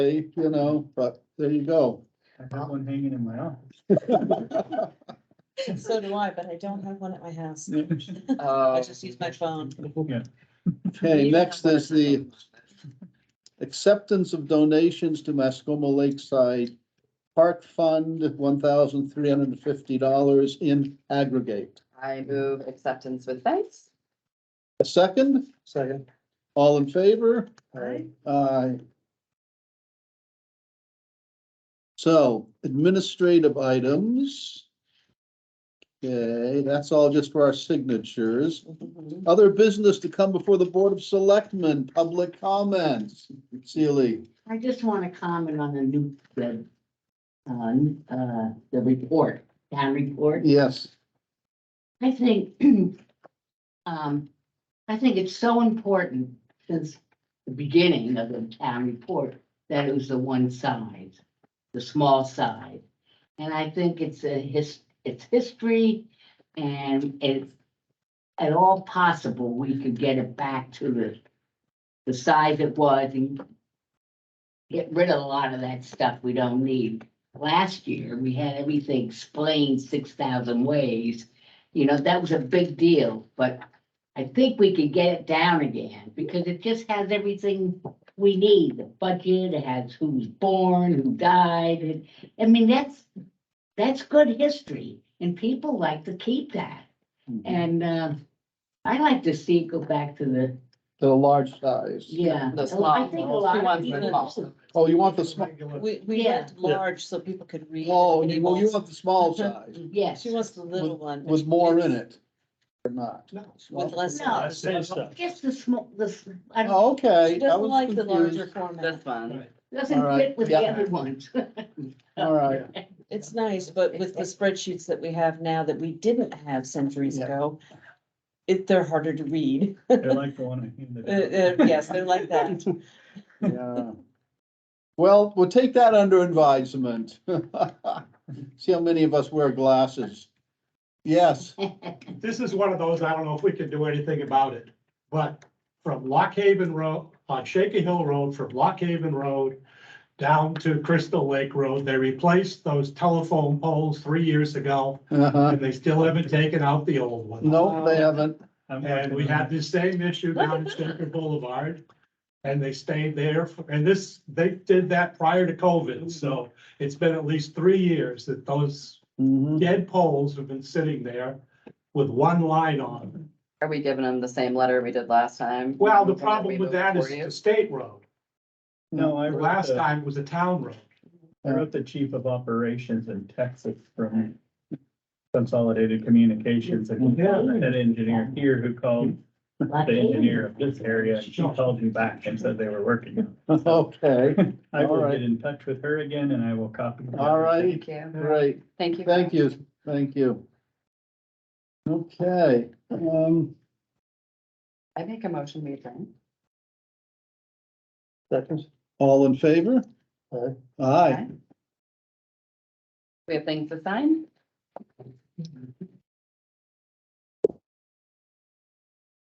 you know, but there you go. I have one hanging in my office. So do I, but I don't have one at my house. I Uh, just use my phone. Yeah. Okay, next is the acceptance of donations to Mascoma Lakeside Park Fund, one thousand three hundred and fifty dollars in aggregate. I move acceptance with thanks. A second, Second. all in favor? Aye. Aye. So administrative items. Okay, that's all just for our signatures. Mm-hmm. Other business to come before the Board of Selectmen, public comments. Sealy, I just want to comment on the new, the, um, uh, the report, town report. yes. I think, um, I think it's so important since the beginning of the town report that it was the one size, the small side. And I think it's a his, it's history and it's at all possible, we could get it back to the, the size it was and get rid of a lot of that stuff we don't need. Last year, we had everything explained six thousand ways you know, that was a big deal, but I think we could get it down again, because it just has everything we need, the budget, it has who's born, who died, and, I mean, that's, that's good history, and people like to keep that, and, uh, I like to see it go back to the, The large size. yeah. The small, Oh, I think a lot she of wants people- the small. Oh, you want the small, We, we Yeah. went large so people could read. oh, the you, well, you labels. want the small size Yes, She wants the little one. with more in it or not? With less. in it. No. Same stuff. just the small, the, I Oh, don't, Okay. I She doesn't was like the larger confused. format. This one. all doesn't right, fit with the yeah. other ones. All right, It's nice, but with the spreadsheets that we have now that we didn't have centuries Yeah. ago, it, they're harder to read. I like the one I handed. Uh, uh, yes, they're like that. yeah. Well, we'll take that under advisement. See how many of us wear glasses. Yes, this is one of those, I don't know if we can do anything about it, but from Lock Haven Road, on Shaky Hill Road, from Lock Haven Road down to Crystal Lake Road, they replaced those telephone poles three years ago, uh-huh. and they still haven't taken out the old one. No, they haven't. And we had the same issue down at Shaker Boulevard, and they stayed there, for- and this, they did that prior to COVID, so it's been at least three years that those Mhm. dead poles have been sitting there with one line on them. Are we giving them the same letter we did last time? Well, the That problem we with moved that is for you? the state road. No, I The wrote last the- time was a town road. I wrote the chief of operations in Texas from Consolidated Communications and he had an engineer here who called the engineer of this area. and She called me back and said they were working. on it. Okay, I All will right. get in touch with her again and I will copy. all righty, Thank you. great. Thank you. Thank you, thank you. Okay, um, I make a motion, we adjourn. Second. all in favor? Aye. Aye. We have things to sign?